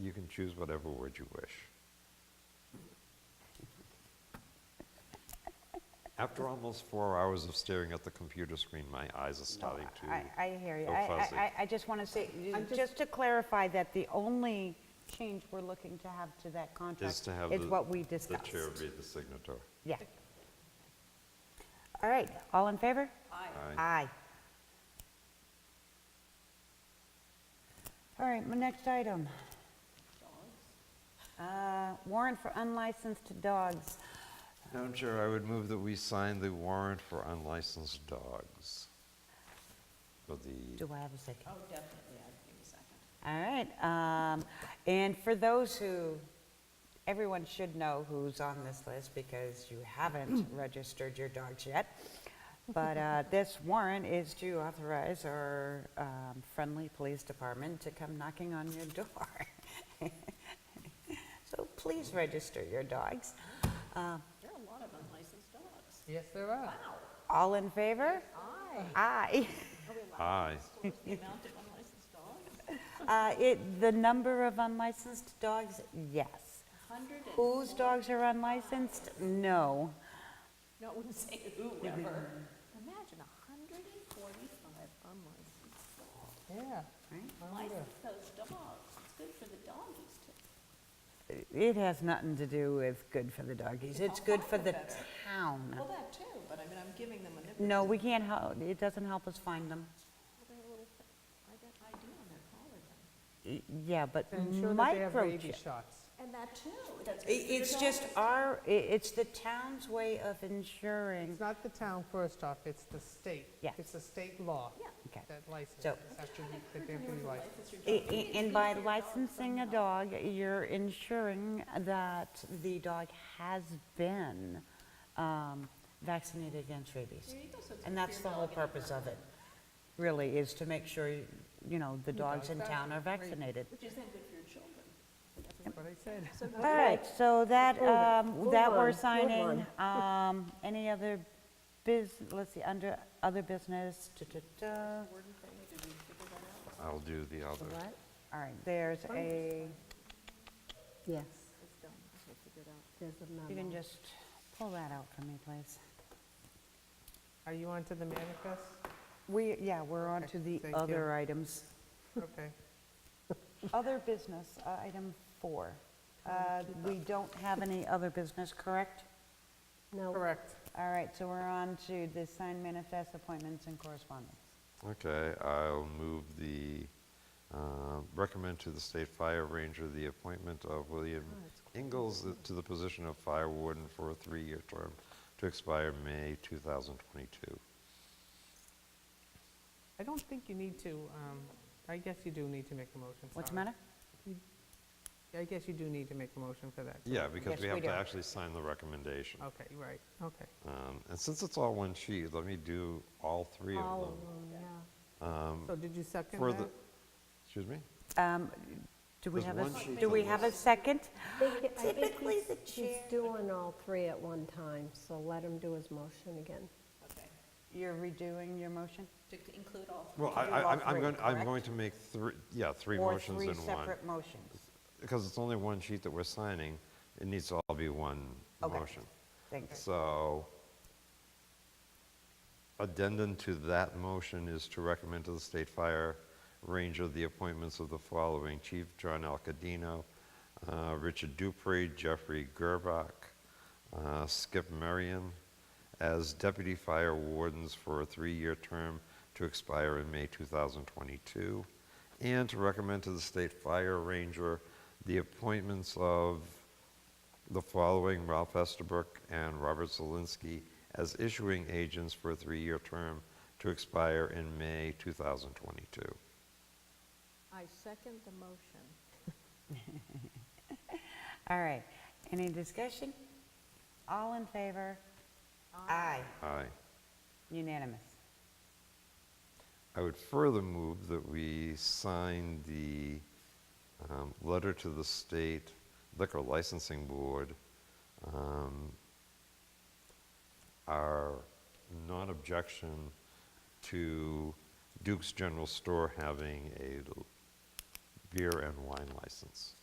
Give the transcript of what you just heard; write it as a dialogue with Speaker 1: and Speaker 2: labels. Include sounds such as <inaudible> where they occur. Speaker 1: you can choose whatever word you wish. After almost four hours of staring at the computer screen, my eyes are starting to.
Speaker 2: I, I hear you.
Speaker 1: go
Speaker 2: I- I,
Speaker 1: fuzzy.
Speaker 2: I, I just want to say, just to clarify that the only change we're looking to have to that contract
Speaker 1: Is to have
Speaker 2: is
Speaker 1: the-
Speaker 2: what we
Speaker 1: the
Speaker 2: discussed.
Speaker 1: chair be the signator.
Speaker 2: Yeah. All right, all in favor?
Speaker 1: Aye.
Speaker 2: Aye. All right, my next item. Uh, Warrant for unlicensed dogs.
Speaker 1: Madam Chair, I would move that we sign the warrant for unlicensed dogs. For the,
Speaker 2: Do I have a second?
Speaker 3: Oh, definitely, I'd give a second.
Speaker 2: All right, um, and for those who, everyone should know who's on this list because you
Speaker 3: <clears throat>
Speaker 2: haven't registered your dogs yet. But
Speaker 3: <laughs>
Speaker 2: uh, this warrant is to authorize our um, friendly police department to come knocking on your door. <laughs> So please register your dogs. Uh,
Speaker 3: There are a lot of unlicensed dogs.
Speaker 4: Yes, there are.
Speaker 2: All in favor? Aye. <laughs>
Speaker 1: aye.
Speaker 3: The amount of unlicensed dogs,
Speaker 2: Uh, It, the number of unlicensed dogs, yes.
Speaker 3: 100 and,
Speaker 2: Whose dogs are unlicensed? No.
Speaker 3: no, I wouldn't say whoever. Imagine 145 unlicensed dogs.
Speaker 4: Yeah.
Speaker 3: License those dogs, it's good for the doggies too.
Speaker 2: It has nothing to do with good for the doggies. It's good for the town.
Speaker 3: Well, that too, but I mean, I'm giving them a nipple.
Speaker 2: No, we can't help, it doesn't help us find them.
Speaker 3: They're a little, thing. I got ID on their collar then.
Speaker 2: Y- Yeah, but
Speaker 4: To ensure that they have rabies
Speaker 2: microchip.
Speaker 4: shots.
Speaker 3: And that too, that's
Speaker 2: I-
Speaker 3: good for the
Speaker 2: It's just
Speaker 3: doggies.
Speaker 2: our, i- it's the town's way of ensuring,
Speaker 4: It's not the town first off, it's the state.
Speaker 2: Yeah.
Speaker 4: It's the state law
Speaker 3: Yeah.
Speaker 2: Okay.
Speaker 4: that licenses,
Speaker 2: So-
Speaker 4: have to be- that they have to be licensed.
Speaker 2: i- i- and by licensing a dog, you're ensuring that the dog has been um, vaccinated against rabies.
Speaker 3: There you go, so it's
Speaker 2: And
Speaker 3: good for
Speaker 2: that's
Speaker 3: your
Speaker 2: the whole
Speaker 3: dog and your
Speaker 2: purpose
Speaker 3: dog.
Speaker 2: of it, really, is to make sure, you know, the dogs
Speaker 4: dog's
Speaker 2: in town are vaccinated.
Speaker 3: Which is then good for your children.
Speaker 4: That's what I said.
Speaker 2: All right, so that, um, that we're signing, um, any other biz, let's see, under other business, da-da-da.
Speaker 1: I'll do the other.
Speaker 2: All right, there's a,
Speaker 5: Yes. There's a memo.
Speaker 2: you can just pull that out for me, please.
Speaker 4: Are you on to the manifest?
Speaker 2: We, yeah, we're on
Speaker 4: Okay,
Speaker 2: to the
Speaker 4: thank you.
Speaker 2: other items.
Speaker 4: Okay.
Speaker 2: Other business, uh, item four. Uh, We don't have any other business, correct?
Speaker 5: No,
Speaker 4: Correct.
Speaker 2: All right, so we're on to the signed manifest appointments and correspondence.
Speaker 1: Okay, I'll move the, uh, recommend to the state fire ranger the appointment of William
Speaker 2: Oh,
Speaker 1: Ingalls to the position of fire warden for a three-year term to expire May 2022.
Speaker 4: I don't think you need to, um, I guess you do need to make a motion.
Speaker 2: What's the
Speaker 4: sorry.
Speaker 2: matter?
Speaker 4: I guess you do need to make a motion for that.
Speaker 1: Yeah,
Speaker 2: Yes,
Speaker 1: because we
Speaker 2: we
Speaker 1: have to
Speaker 2: do.
Speaker 1: actually sign the recommendation.
Speaker 4: Okay, right, okay.
Speaker 1: Um, And since it's all one sheet, let me do all three
Speaker 5: all
Speaker 1: of
Speaker 5: of
Speaker 1: them.
Speaker 5: them, yeah.
Speaker 4: So did you second
Speaker 1: Um, For the,
Speaker 4: that?
Speaker 1: excuse me?
Speaker 2: Um, Do we
Speaker 1: There's
Speaker 2: have a,
Speaker 1: one
Speaker 2: s-
Speaker 1: sheet
Speaker 2: do
Speaker 1: on
Speaker 2: we
Speaker 1: the
Speaker 2: have a second?
Speaker 5: I think it- I think
Speaker 2: Typically,
Speaker 5: he's-
Speaker 2: the chair-
Speaker 5: He's doing all three at one time, so let him do his motion again.
Speaker 3: Okay,
Speaker 2: You're redoing your motion?
Speaker 3: to include all
Speaker 1: Well, I,
Speaker 2: can do all
Speaker 1: I- I'm- I'm
Speaker 2: three,
Speaker 1: going, I'm
Speaker 2: correct?
Speaker 1: going to make three, yeah, three motions in
Speaker 2: Or
Speaker 1: one.
Speaker 2: three separate motions?
Speaker 1: Because it's only one sheet that we're signing, it needs to all be one
Speaker 2: Okay.
Speaker 1: motion.
Speaker 2: Thanks.
Speaker 1: So addendum to that motion is to recommend to the state fire ranger the appointments of the following: Chief John Alcadino, uh, Richard Dupree, Jeffrey Gerbach, uh, Skip Marion, as deputy fire wardens for a three-year term to expire in May 2022, and to recommend to the state fire ranger the appointments of the following Ralph Estabrook and Robert Zelinski as issuing agents for a three-year term to expire in May 2022.
Speaker 3: I second the motion.
Speaker 2: All right, any discussion? All in favor? Aye.
Speaker 1: Aye.
Speaker 2: Unanimous.
Speaker 1: I would further move that we sign the um, letter to the state liquor licensing board. um, Our non-objection to Duke's General Store having a beer and wine license.